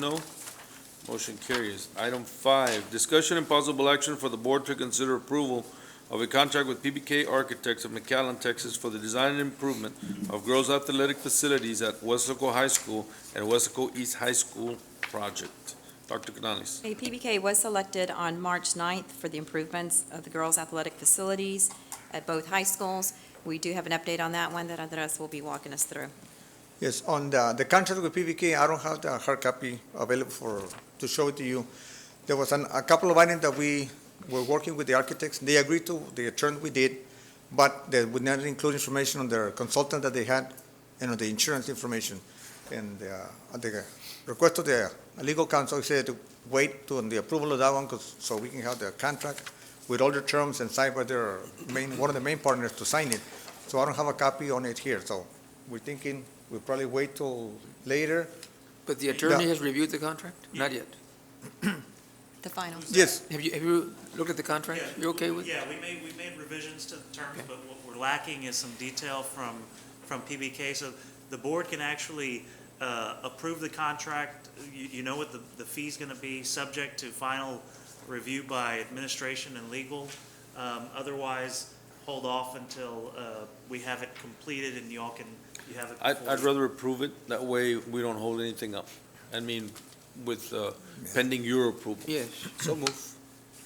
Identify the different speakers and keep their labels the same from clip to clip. Speaker 1: No. Motion carries. Item five, discussion and possible action for the board to consider approval of a contract with PBK Architects of McAllen, Texas for the design and improvement of girls' athletic facilities at Wesco High School and Wesco East High School project. Dr. Canales.
Speaker 2: A PBK was selected on March 9th for the improvements of the girls' athletic facilities at both high schools. We do have an update on that one that Andres will be walking us through.
Speaker 3: Yes, on the, the contract with PBK, I don't have the hard copy available for, to show it to you. There was an, a couple of items that we were working with the architects, they agreed to, the terms we did, but they would not include information on their consultant that they had and on the insurance information. And, uh, at the request of the legal counsel said to wait to, on the approval of that one, 'cause- so we can have the contract with all the terms and signed by their main, one of the main partners to sign it. So I don't have a copy on it here, so we're thinking We'll probably wait till later.
Speaker 4: But the attorney
Speaker 3: Yeah.
Speaker 4: has reviewed the contract? Not yet.
Speaker 2: The final.
Speaker 3: Yes.
Speaker 4: Have you, have you looked at the contract?
Speaker 5: Yeah,
Speaker 4: You okay with? it?
Speaker 5: Yeah, we made, we made revisions to the terms,
Speaker 4: Okay.
Speaker 5: but what we're lacking is some detail from, from PBK. So the board can actually uh, approve the contract. You, you know what the, the fee's going to be, subject to final review by administration and legal. Um, Otherwise, hold off until uh, we have it completed and y'all can, you have it.
Speaker 1: I'd,
Speaker 5: before
Speaker 1: I'd
Speaker 5: you.
Speaker 1: rather approve it. That way we don't hold anything up. I mean, with, uh, pending your approval.
Speaker 4: Yes, so move.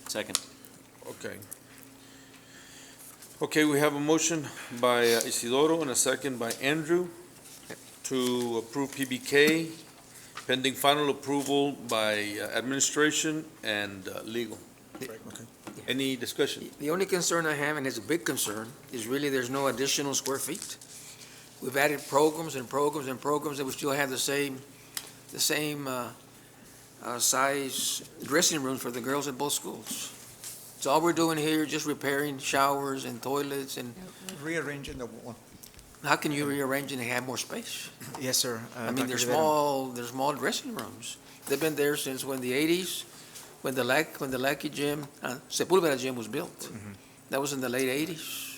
Speaker 6: Second.
Speaker 1: Okay. Okay, we have a motion by uh, Isidoro and a second by Andrew to approve PBK pending final approval by uh, administration and uh, legal. Any discussion?
Speaker 4: The only concern I have, and it's a big concern, is really there's no additional square feet. We've added programs and programs and programs, and we still have the same, the same uh, uh, size dressing rooms for the girls at both schools. So all we're doing here, just repairing showers and toilets, and
Speaker 3: Rearranging the one.
Speaker 4: how can you rearrange and have more space?
Speaker 7: Yes, sir. Uh,
Speaker 4: I mean,
Speaker 7: Dr.
Speaker 4: they're
Speaker 7: Rivera.
Speaker 4: small, they're small dressing rooms. They've been there since when the eighties, when the Lac, when the Lackey Gym, uh, Sepulveda Gym was built. That was in the late eighties.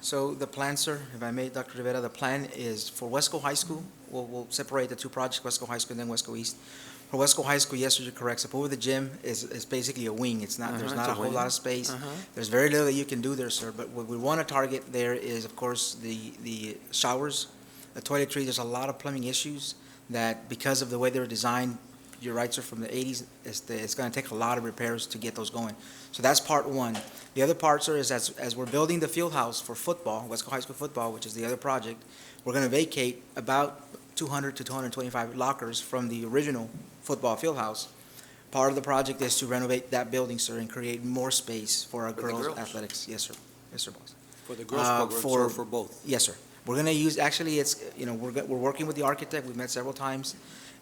Speaker 7: So the plan, sir, if I may, Dr. Rivera, the plan is for Wesco High School, we'll, we'll separate the two projects, Wesco High School and then Wesco East. For Wesco High School, yes, sir, you're correct. So over the gym is, is basically a wing. It's not, there's
Speaker 4: Uh-huh, it's
Speaker 7: not
Speaker 4: a
Speaker 7: a whole
Speaker 4: wing.
Speaker 7: lot of space.
Speaker 4: Uh-huh.
Speaker 7: There's very little that you can do there, sir, but what we want to target there is, of course, the, the showers, the toiletries, there's a lot of plumbing issues that because of the way they were designed, you're right, sir, from the eighties, it's, the- it's going to take a lot of repairs to get those going. So that's part one. The other part, sir, is as, as we're building the field house for football, Wesco High School football, which is the other project, we're going to vacate about two hundred to two hundred and twenty-five lockers from the original football field house. Part of the project is to renovate that building, sir, and create more space for our
Speaker 4: For the girls.
Speaker 7: girls' athletics. Yes, sir. Yes, sir, boss.
Speaker 6: For the
Speaker 7: girls' Uh, programs or for- for
Speaker 6: both?
Speaker 7: Yes, sir. We're gonna use, actually, it's, you know, we're, go- we're working with the architect, we've met several times,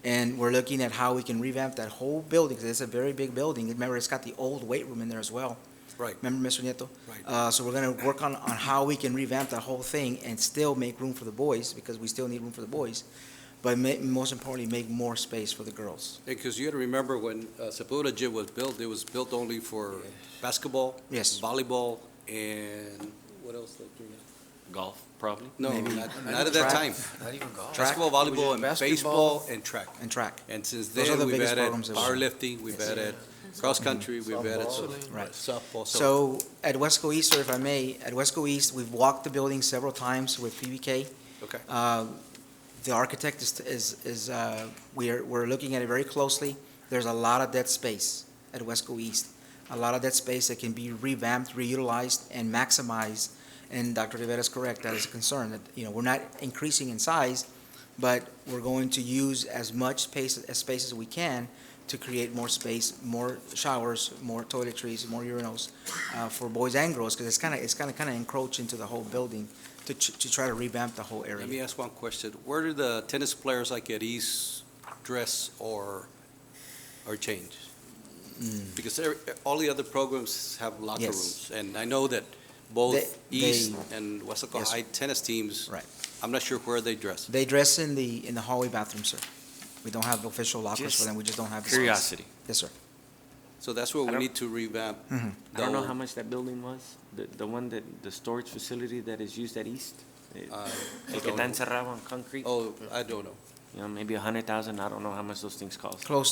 Speaker 7: and we're looking at how we can revamp that whole building, because it's a very big building. Remember, it's got the old weight room in there as well.
Speaker 6: Right.
Speaker 7: Remember, Mr. Nieto?
Speaker 6: Right.
Speaker 7: Uh, so we're gonna work on, on how we can revamp that whole thing and still make room for the boys, because we still need room for the boys, but ma- most importantly, make more space for the girls.
Speaker 6: Because you got to remember when uh, Sepulveda Gym was built, it was built only for basketball,
Speaker 7: Yes.
Speaker 6: volleyball, and what else? did you-
Speaker 8: Golf, probably.
Speaker 6: No,
Speaker 7: Maybe.
Speaker 6: not not at that
Speaker 7: Oh,
Speaker 6: time.
Speaker 4: Not even golf.
Speaker 6: Basketball, volleyball, and baseball, and track.
Speaker 7: And track,
Speaker 6: And since
Speaker 7: Those are
Speaker 6: then,
Speaker 7: the
Speaker 6: we've
Speaker 7: biggest
Speaker 6: added
Speaker 7: programs that we-
Speaker 6: powerlifting, we've
Speaker 7: Yes.
Speaker 6: added cross-country, we've added
Speaker 7: right.
Speaker 6: softball.
Speaker 7: So at Wesco East, sir, if I may, at Wesco East, we've walked the building several times with PBK.
Speaker 6: Okay.
Speaker 7: Uh, The architect is, is, is, uh, we are, we're looking at it very closely. There's a lot of dead space at Wesco East. A lot of dead space that can be revamped, reutilized, and maximized. And Dr. Rivera is correct, that is a concern, that, you know, we're not increasing in size, but we're going to use as much space, as space as we can to create more space, more showers, more toiletries, more urinals uh, for boys and girls, because it's kind of, it's kind of, kind of encroach into the whole building to, ch- to try to revamp the whole
Speaker 6: Let
Speaker 7: area.
Speaker 6: me ask one question. Where do the tennis players like at East dress or, or change? Because every- all the other programs have locker
Speaker 7: Mm. Yes.
Speaker 6: rooms. And I know that both
Speaker 7: They-
Speaker 6: East and Wesco
Speaker 7: Yes.
Speaker 6: High tennis teams.
Speaker 7: Right.
Speaker 6: I'm not sure where they dress.
Speaker 7: They dress in the, in the hallway bathroom, sir. We don't have official lockers for
Speaker 8: Just
Speaker 7: them, we just don't have. the space.
Speaker 8: Curiosity.
Speaker 7: Yes, sir.
Speaker 6: So that's where
Speaker 8: I
Speaker 6: we
Speaker 8: don't-
Speaker 6: need to revamp.
Speaker 7: Mm-hmm.
Speaker 8: I don't know
Speaker 6: the-
Speaker 8: how much that building was, the, the one that, the storage facility that is used at East. It-
Speaker 6: Uh, I
Speaker 8: El que
Speaker 6: don't
Speaker 8: está
Speaker 6: know.
Speaker 8: encerrado on concrete, you
Speaker 6: Oh, I don't know.
Speaker 8: know, maybe a hundred thousand, I don't know how much those things cost.
Speaker 7: Close